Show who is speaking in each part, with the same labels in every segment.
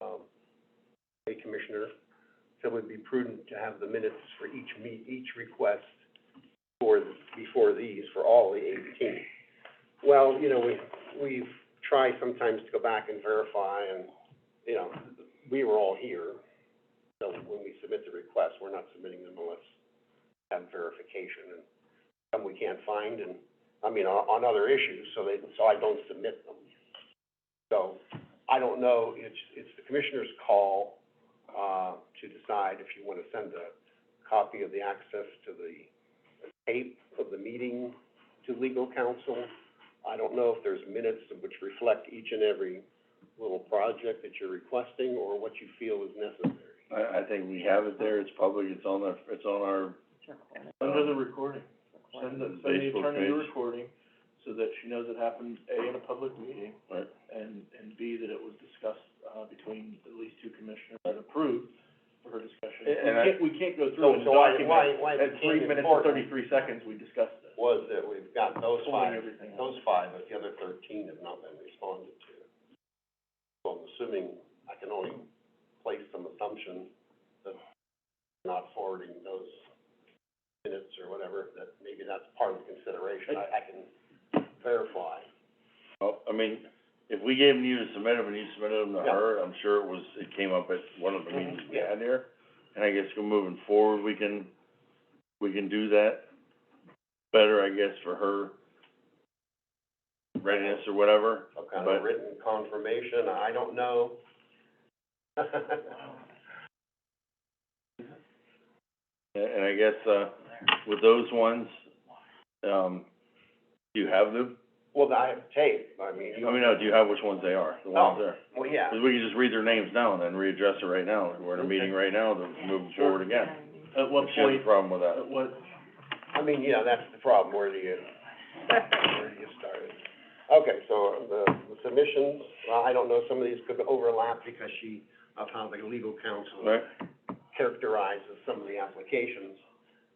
Speaker 1: um, commissioner, so it would be prudent to have the minutes for each meet, each request for, th- before these, for all the eighteen. Well, you know, we, we've tried sometimes to go back and verify, and, you know, we were all here, so when we submit the request, we're not submitting them unless we have verification, and some we can't find, and, I mean, on, on other issues, so they, so I don't submit them. So, I don't know, it's, it's the commissioner's call, uh, to decide if you wanna send a copy of the access to the tape of the meeting to legal counsel. I don't know if there's minutes which reflect each and every little project that you're requesting, or what you feel is necessary.
Speaker 2: I, I think we have it there, it's public, it's on our, it's on our,
Speaker 3: Under the recording, send the, send the
Speaker 2: Facebook
Speaker 3: attorney the
Speaker 2: page.
Speaker 3: recording, so that she knows it happened, A, in a public meeting,
Speaker 2: right,
Speaker 3: and, and B, that it was discussed, uh, between at least two commissioners and approved for her discussion.
Speaker 2: And- and I-
Speaker 3: We can't, we can't go
Speaker 1: So-
Speaker 3: through and
Speaker 1: so why-
Speaker 3: document.
Speaker 1: why- why it
Speaker 3: At three
Speaker 1: became
Speaker 3: minutes and
Speaker 1: important-
Speaker 3: thirty-three seconds, we discussed it.
Speaker 1: Was that we've got those
Speaker 3: Pulling
Speaker 1: five,
Speaker 3: everything out.
Speaker 1: those five, but the other thirteen have not been responded to. So I'm assuming, I can only place some assumption that they're not forwarding those minutes or whatever, that maybe that's part of the consideration, I, I can verify.
Speaker 2: well, I mean, if we gave them to you to submit them, and you submitted them to
Speaker 1: Yeah.
Speaker 2: her, I'm sure it was, it came up at one
Speaker 3: Mm-hmm.
Speaker 2: of the meetings we
Speaker 1: Yeah.
Speaker 2: had here. And I guess go moving forward, we can, we can do that better, I guess, for her readiness or whatever.
Speaker 1: Some kind of
Speaker 2: But-
Speaker 1: written confirmation, I don't know.
Speaker 2: And, and I guess, uh, with those ones, um, do you have them?
Speaker 1: Well, I have tape, I mean,
Speaker 2: I
Speaker 1: you,
Speaker 2: mean, no, do you have which ones they are, the ones there?
Speaker 1: well, yeah.
Speaker 2: Because we can just read their names now and then readdress it right now, we're in a meeting right now, then we're moving
Speaker 3: Sure.
Speaker 2: forward again.
Speaker 3: At what
Speaker 2: If she has a
Speaker 3: point,
Speaker 2: problem with that.
Speaker 3: at what,
Speaker 1: I mean, yeah, that's the problem, where do you, where do you start it? Okay, so the the submissions, well, I don't know, some of these could overlap because she, of how the legal counsel
Speaker 2: Right,
Speaker 1: characterizes some of the applications.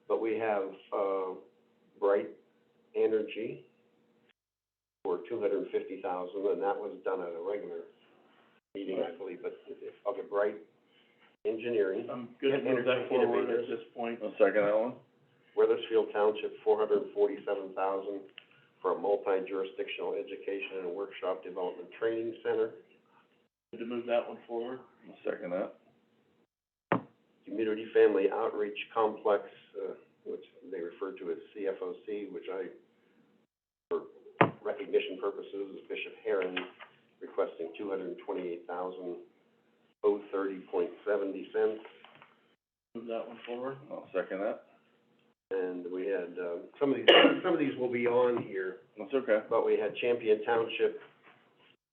Speaker 1: But we have, uh, Bright Energy for two hundred and fifty thousand, and that was done at a regular meeting, I believe, but, okay, Bright Engineering.
Speaker 3: I'm good to move that forward at this point.
Speaker 2: I'll second that one.
Speaker 1: Weathersfield Township, four hundred and forty-seven thousand for a multi-jurisdictional education and workshop development training center.
Speaker 3: Good to move that one forward.
Speaker 2: I'll second that.
Speaker 1: Community Family Outreach Complex, uh, which they refer to as CFOC, which I, for recognition purposes, is Bishop Heron requesting two hundred and twenty-eight thousand oh thirty point seventy cents.
Speaker 3: Move that one forward.
Speaker 2: I'll second that.
Speaker 1: And we had, uh, some of these, some of these will be on here,
Speaker 2: That's okay.
Speaker 1: but we had Champion Township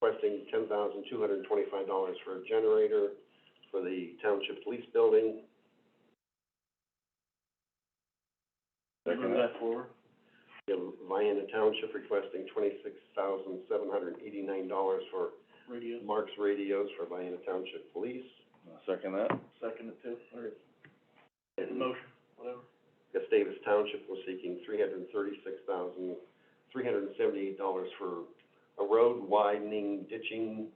Speaker 1: requesting ten thousand two hundred and twenty-five dollars for a generator for the township police building.
Speaker 3: Move
Speaker 2: Second that.
Speaker 3: that forward.
Speaker 1: We have Vienna Township requesting twenty-six thousand seven hundred and eighty-nine dollars for
Speaker 3: Radio,
Speaker 1: Mark's radios for Vienna Township Police.
Speaker 2: I'll second that.
Speaker 3: second it too, or
Speaker 1: And
Speaker 3: motion, whatever.
Speaker 1: Gustavus Township was seeking three hundred and thirty-six thousand three hundred and seventy-eight dollars for a road widening, ditching,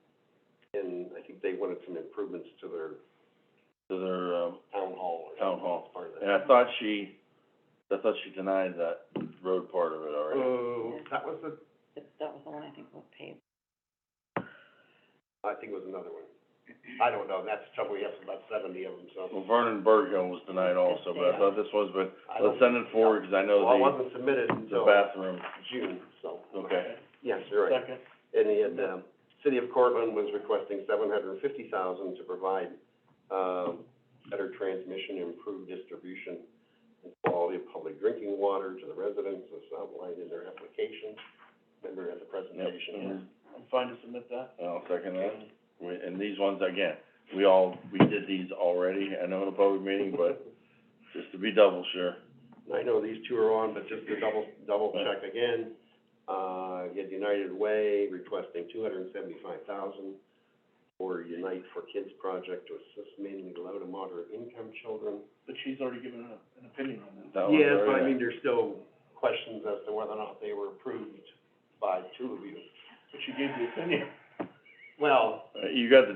Speaker 1: and I think they wanted some improvements to their
Speaker 2: To their, um,
Speaker 1: town hall or
Speaker 2: Town
Speaker 1: something
Speaker 2: hall.
Speaker 1: as part of that.
Speaker 2: and I thought she, I thought she denied that road part of it already.
Speaker 1: Oh, that was the,
Speaker 4: That was the one I think was paid.
Speaker 1: I think it was another one. I don't know, that's the trouble, we have about seventy of them, so.
Speaker 2: Well, Vernon Berghill was denied also, but I thought this was, but
Speaker 1: I don't-
Speaker 2: let's send it forward, because I
Speaker 1: Well, it
Speaker 2: know
Speaker 1: wasn't submitted
Speaker 2: the, the
Speaker 1: until
Speaker 2: bathroom,
Speaker 1: June, so.
Speaker 2: okay.
Speaker 1: Yes, you're right.
Speaker 3: Second,
Speaker 1: And the, and, um, City of Cortland was requesting seven hundred and fifty thousand to provide, um, better transmission, improved distribution, and quality of public drinking water to the residents as outlined in their application. Remember at the
Speaker 2: Yep.
Speaker 1: presentation?
Speaker 3: I'm fine to submit that.
Speaker 2: I'll second that. We, and these ones, again, we all, we did these already, I know in a public meeting, but just to be double sure.
Speaker 1: I know these two are on, but just to double, double check again, uh, you had United Way requesting two hundred and seventy-five thousand for Unite for Kids project to assist mainly low to moderate income children.
Speaker 3: But she's already given an, an opinion on that.
Speaker 2: That one's
Speaker 1: Yeah, but I
Speaker 2: already-
Speaker 1: mean, there's still questions as to whether or not they were approved by two of you.
Speaker 3: But she gave the opinion.
Speaker 1: Well,
Speaker 2: Uh, You got the